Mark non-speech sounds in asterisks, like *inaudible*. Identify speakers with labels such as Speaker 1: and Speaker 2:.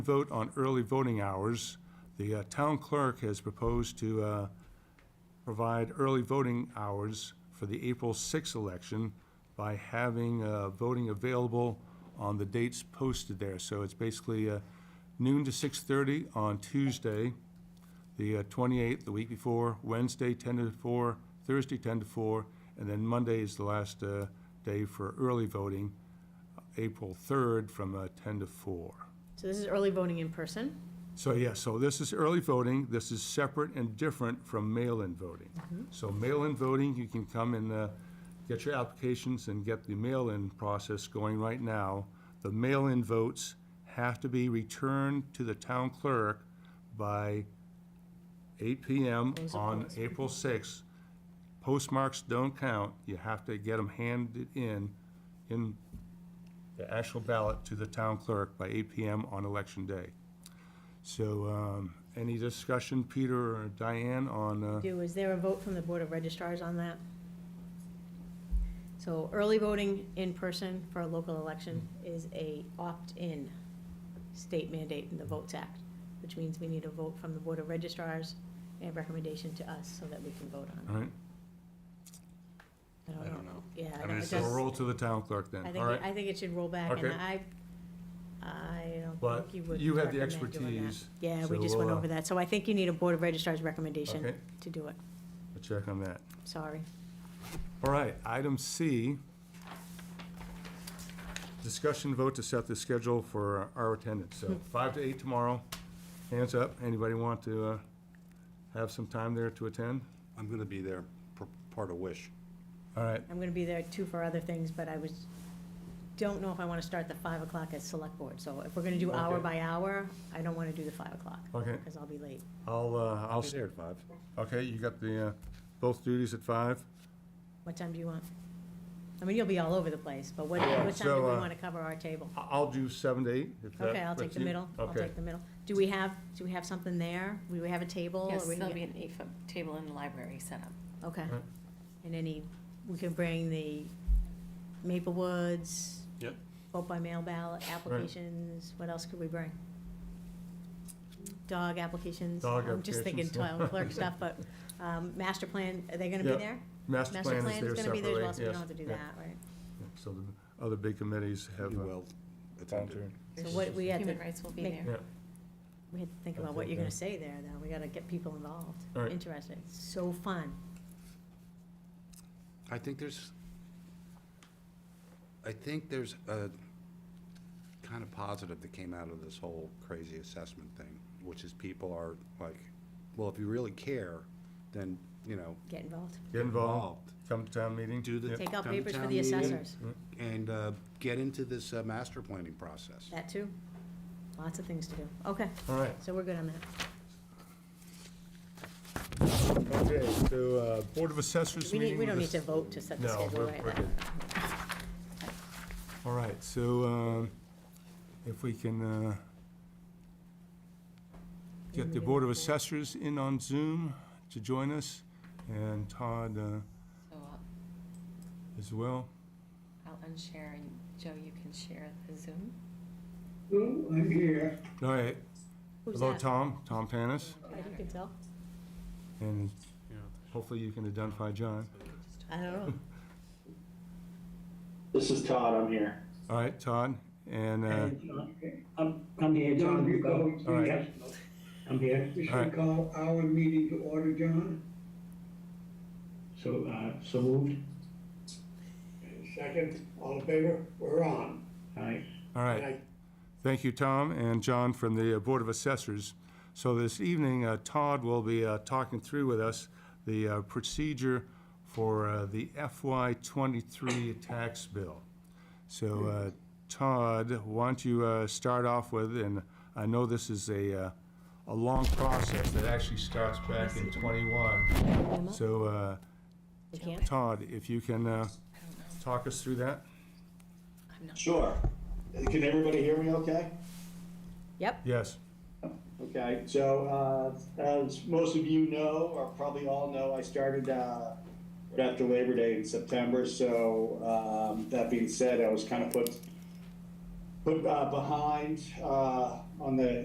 Speaker 1: Vote on early voting hours. The uh, town clerk has proposed to uh, provide early voting hours for the April 6th election by having uh, voting available on the dates posted there. So it's basically uh, noon to 6:30 on Tuesday, the uh, 28th, the week before, Wednesday 10 to 4, Thursday 10 to 4, and then Monday is the last uh, day for early voting, April 3rd from uh, 10 to 4.
Speaker 2: So this is early voting in person.
Speaker 1: So, yeah, so this is early voting, this is separate and different from mail-in voting. So mail-in voting, you can come and uh, get your applications and get the mail-in process going right now. The mail-in votes have to be returned to the town clerk by 8 PM
Speaker 2: Close of
Speaker 1: on
Speaker 2: polls.
Speaker 1: April 6th. Postmarks don't count, you have to get them handed in, in the actual ballot to the town clerk by 8 PM on election day. So, um, any discussion, Peter or Diane, on, uh,
Speaker 2: Do, is there a vote from the Board of registrars on that? So early voting in person for a local election is a opt-in state mandate in the Votes Act, which means we need a vote from the Board of registrars and recommendation to us so that we can vote on
Speaker 1: all right?
Speaker 2: it. I don't know. Yeah.
Speaker 1: I mean,
Speaker 2: it
Speaker 1: it's a
Speaker 2: does-
Speaker 1: roll to the town clerk then,
Speaker 2: I
Speaker 1: all
Speaker 2: think,
Speaker 1: right?
Speaker 2: I think it should roll back and
Speaker 1: Okay.
Speaker 2: I, I don't
Speaker 1: But
Speaker 2: think you would
Speaker 1: you have the
Speaker 2: recommend doing that.
Speaker 1: expertise,
Speaker 2: Yeah, we
Speaker 1: so
Speaker 2: just went
Speaker 1: we'll, uh,
Speaker 2: over that. So I think you need a Board of registrars recommendation
Speaker 1: Okay.
Speaker 2: to do it.
Speaker 1: We'll check on that.
Speaker 2: Sorry.
Speaker 1: All right, item C. Discussion vote to set the schedule for our attendance,
Speaker 2: *laughs*
Speaker 1: so five to eight tomorrow. Hands up, anybody want to, uh, have some time there to attend?
Speaker 3: I'm gonna be there, for part of Wish.
Speaker 1: All right,
Speaker 2: I'm gonna be there too for other things, but I was, don't know if I wanna start the five o'clock at select board, so if we're gonna do hour
Speaker 1: Okay.
Speaker 2: by hour, I don't wanna do the five o'clock,
Speaker 1: okay,
Speaker 2: cause I'll be late.
Speaker 1: I'll, uh, I'll, s-
Speaker 3: there at five.
Speaker 1: okay, you got the, uh, both duties at five?
Speaker 2: What time do you want? I mean, you'll be all over the place, but what,
Speaker 1: Yeah,
Speaker 2: what time do
Speaker 1: so,
Speaker 2: we
Speaker 1: uh,
Speaker 2: wanna cover our table?
Speaker 1: I- I'll do seven to eight, if that
Speaker 2: Okay, I'll take
Speaker 1: fits
Speaker 2: the
Speaker 1: you.
Speaker 2: middle, I'll
Speaker 1: Okay.
Speaker 2: take the middle. Do we have, do we have something there? We we have a table? or
Speaker 4: Yes,
Speaker 2: we can
Speaker 4: there'll
Speaker 2: get-
Speaker 4: be an eight-foot table in the library set up.
Speaker 2: Okay,
Speaker 1: Right.
Speaker 2: and any, we can bring the Maple Woods.
Speaker 3: Yep.
Speaker 2: Vote by mail ballot applications, what else could we bring? Dog applications.
Speaker 1: Dog
Speaker 2: I'm just thinking
Speaker 1: applications, yeah. *laughs*
Speaker 2: town clerk stuff, but, um, master plan, are they gonna be
Speaker 1: Yeah,
Speaker 2: there?
Speaker 1: Master plan is there
Speaker 2: gonna be there as well, so
Speaker 1: separately,
Speaker 2: we don't have to do
Speaker 1: yes, yeah.
Speaker 2: that, right?
Speaker 1: So the other big committees have.
Speaker 3: You
Speaker 1: uh,
Speaker 3: will attend.
Speaker 2: So what, we had to,
Speaker 4: Human rights will be
Speaker 2: make-
Speaker 4: there.
Speaker 2: we had to think about what you're gonna say there, though, we gotta get people involved,
Speaker 1: All right.
Speaker 2: interested, It's so fun.
Speaker 3: I think there's, I think there's a kind of positive that came out of this whole crazy assessment thing, which is people are like, well, if you really care, then, you know,
Speaker 2: Get involved,
Speaker 1: Get involved, come to town meeting.
Speaker 3: do the.
Speaker 1: Yeah.
Speaker 2: take out
Speaker 3: come to
Speaker 2: papers for
Speaker 3: town
Speaker 2: the
Speaker 3: meeting
Speaker 2: assessors,
Speaker 1: Mm-hmm.
Speaker 3: And, uh, get into this, uh, master planning process.
Speaker 2: that too, lots of things to do, okay.
Speaker 1: All right,
Speaker 2: So we're good on that.
Speaker 1: okay, so, uh, Board of Assessors
Speaker 2: We
Speaker 1: meeting.
Speaker 2: need, we don't need
Speaker 1: with
Speaker 2: to
Speaker 1: us-
Speaker 2: vote to set the
Speaker 1: No,
Speaker 2: schedule
Speaker 1: we're,
Speaker 2: right
Speaker 1: we're
Speaker 2: now.
Speaker 1: good. All right, so, um, if we can, uh, get the Board of Assessors in on Zoom to join us, and Todd, uh,
Speaker 4: So I'll-
Speaker 1: as well.
Speaker 4: I'll unshare, and Joe, you can share the Zoom.
Speaker 5: Oh, I'm here.
Speaker 1: All right,
Speaker 2: Who's
Speaker 1: hello,
Speaker 2: that?
Speaker 1: Tom, Tom Tanis,
Speaker 2: I you can tell.
Speaker 1: and hopefully you can identify John.
Speaker 2: I don't *laughs* know.
Speaker 6: This is Todd, I'm here.
Speaker 1: All right, Todd, and, uh,
Speaker 5: I'm, I'm here, John, you go.
Speaker 1: All right.
Speaker 5: Yep. I'm here.
Speaker 1: All right.
Speaker 5: call our meeting to order, John. So, uh, so moved. Second, all in favor, we're on. Aye.
Speaker 1: all right. Thank you, Tom and John from the uh, Board of Assessors. So this evening, uh, Todd will be uh, talking through with us the uh, procedure for uh, the FY '23 tax bill. So uh, Todd, why don't you uh, start off with, and I know this is a, uh, a long process that actually starts back in '21. So uh,
Speaker 2: We can't?
Speaker 1: Todd, if you can uh,
Speaker 4: I don't know.
Speaker 1: talk us through that?
Speaker 4: I'm not.
Speaker 6: Sure. Can everybody hear me okay?
Speaker 2: Yep,
Speaker 1: Yes.
Speaker 6: Okay, so, uh, as most of you know, or probably all know, I started, uh, right after Labor Day in September, so, um, that being said, I was kind of put put uh, behind uh, on the